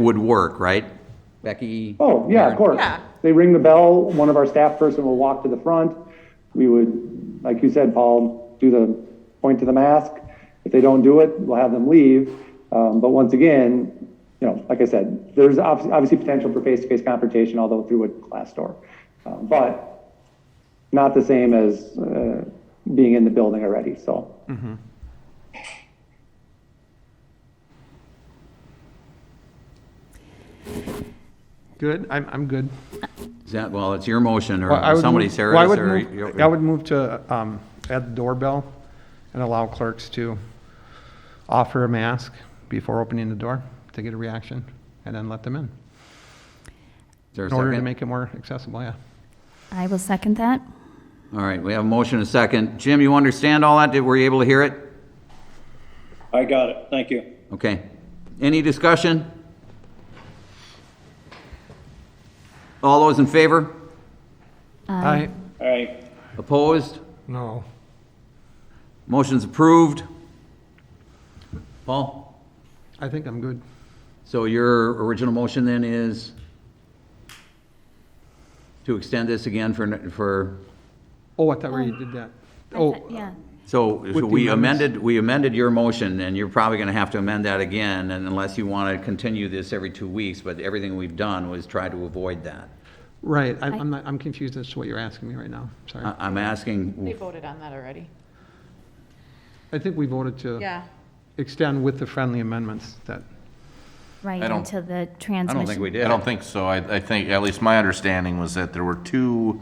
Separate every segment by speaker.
Speaker 1: would work, right? Becky?
Speaker 2: Oh, yeah, of course.
Speaker 3: Yeah.
Speaker 2: They ring the bell, one of our staff person will walk to the front. We would, like you said, Paul, do the point to the mask. If they don't do it, we'll have them leave. Um, but once again, you know, like I said, there's obviously, obviously potential for face-to-face confrontation, although through a glass door. Um, but not the same as, uh, being in the building already, so.
Speaker 4: Good, I'm, I'm good.
Speaker 1: Is that, well, it's your motion
Speaker 4: Well, I
Speaker 1: or
Speaker 4: would
Speaker 1: somebody,
Speaker 4: move-
Speaker 1: Sarah,
Speaker 4: well, I would
Speaker 1: Sarah,
Speaker 4: move-
Speaker 1: you-
Speaker 4: I would move to um, add the doorbell and allow clerks to offer a mask before opening the door to get a reaction and then let them in.
Speaker 1: is there a
Speaker 4: In order to
Speaker 1: second?
Speaker 4: make it more accessible, yeah.
Speaker 5: I will second that.
Speaker 1: All right, we have a motion and a second. Jim, you understand all that? Did- Were you able to hear it?
Speaker 6: I got it, thank you.
Speaker 1: Okay. Any discussion? All those in favor?
Speaker 4: I
Speaker 6: All right,
Speaker 1: Opposed?
Speaker 4: No.
Speaker 1: Motion's approved. Paul?
Speaker 4: I think I'm good.
Speaker 1: So your original motion then is to extend this again for, for,
Speaker 4: Oh, I thought we did that.
Speaker 5: I
Speaker 4: Oh,
Speaker 5: thought- Yeah,
Speaker 1: so
Speaker 4: the
Speaker 1: so we
Speaker 4: amendments.
Speaker 1: amended, we amended your motion, and you're probably going to have to amend that again, and unless you want to continue this every two weeks, but everything we've done was try to avoid that.
Speaker 4: right, I'm- I'm, not- I'm confused as to what you're asking me right now, sorry.
Speaker 1: I- I'm
Speaker 3: They
Speaker 1: asking,
Speaker 3: voted on that already.
Speaker 4: I think we voted to
Speaker 3: Yeah.
Speaker 4: extend with the friendly amendments that,
Speaker 5: right,
Speaker 7: I don't-
Speaker 5: until the
Speaker 1: I
Speaker 5: transmission.
Speaker 1: don't think we did.
Speaker 7: I don't think so. I, I think, at least my understanding was that there were two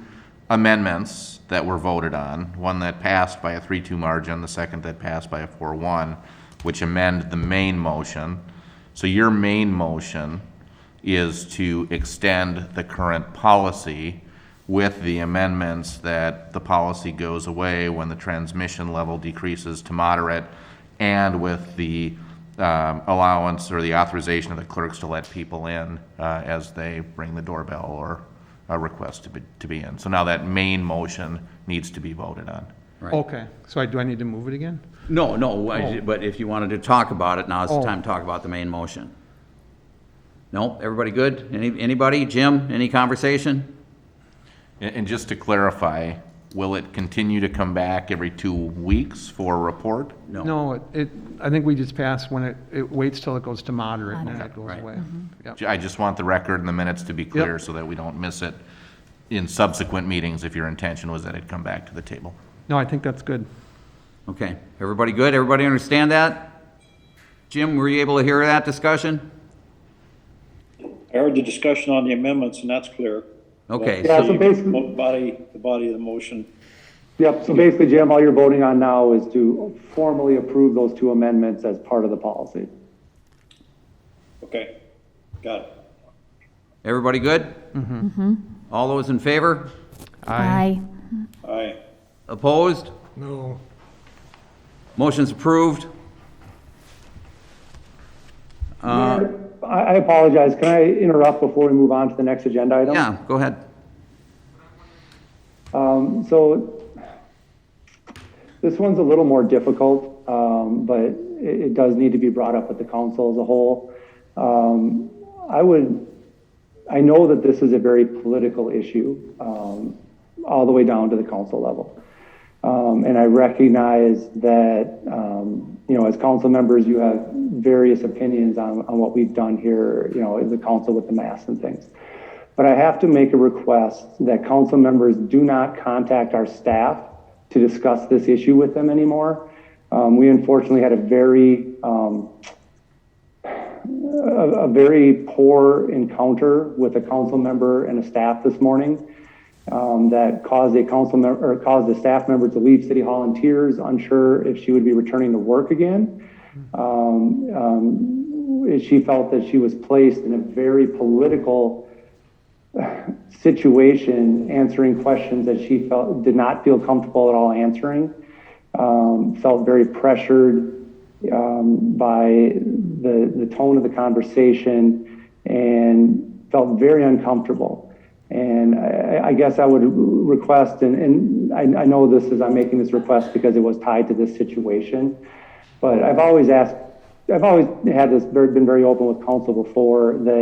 Speaker 7: amendments that were voted on. One that passed by a three-two margin, the second that passed by a four-one, which amend the main motion. So your main motion is to extend the current policy with the amendments that the policy goes away when the transmission level decreases to moderate and with the um, allowance or the authorization of the clerks to let people in uh, as they ring the doorbell or a request to be, to be in. So now that main motion needs to be voted on.
Speaker 1: Right.
Speaker 4: okay, so I, do I need to move it again?
Speaker 1: no, no,
Speaker 7: Oh.
Speaker 1: I- but if you wanted to talk about it, now's the
Speaker 4: Oh.
Speaker 1: time to talk about the main motion. No, everybody good? Any Anybody? Jim, any conversation?
Speaker 7: And, and just to clarify, will it continue to come back every two weeks for a report?
Speaker 4: No, it- it, I think we just passed when it, it waits till it goes to moderate and then it goes
Speaker 1: Right.
Speaker 4: away. Yep.
Speaker 7: Ju- I just want the record and the minutes to be clear so that we don't miss it in subsequent meetings if your intention was that it come back to the table.
Speaker 4: No, I think that's good.
Speaker 1: Okay, everybody good? Everybody understand that? Jim, were you able to hear that discussion?
Speaker 6: I heard the discussion on the amendments, and that's clear.
Speaker 1: Okay,
Speaker 6: That's
Speaker 1: so,
Speaker 6: the
Speaker 2: so basically-
Speaker 6: mo- Body, the body of the motion.
Speaker 2: Yep, so basically, Jim, all you're voting on now is to formally approve those two amendments as part of the policy.
Speaker 6: Okay, got it.
Speaker 1: everybody good? Mm-hmm. All those in favor?
Speaker 5: Aye.
Speaker 6: All right.
Speaker 1: Opposed?
Speaker 4: No.
Speaker 1: Motion's approved.
Speaker 2: I, I apologize, can I interrupt before we move on to the next agenda item?
Speaker 1: Yeah, go ahead.
Speaker 2: Um, so this one's a little more difficult, um, but it, it does need to be brought up with the council as a whole. Um, I would, I know that this is a very political issue, um, all the way down to the council level. Um, and I recognize that, um, you know, as council members, you have various opinions on, on what we've done here, you know, as a council with the masks and things. But I have to make a request that council members do not contact our staff to discuss this issue with them anymore. Um, we unfortunately had a very, um, a, a very poor encounter with a council member and a staff this morning um, that caused a council member, or caused a staff member to leave City Hall in tears, unsure if she would be returning to work again Um, she felt that she was placed in a very political situation, answering questions that she felt did not feel comfortable at all answering. Um, felt very pressured um, by the the tone of the conversation, and felt very uncomfortable. And I, I guess I would request, and, and I, I know this is I'm making this request because it was tied to this situation, but I've always asked I've always had this, very- been very open with council before that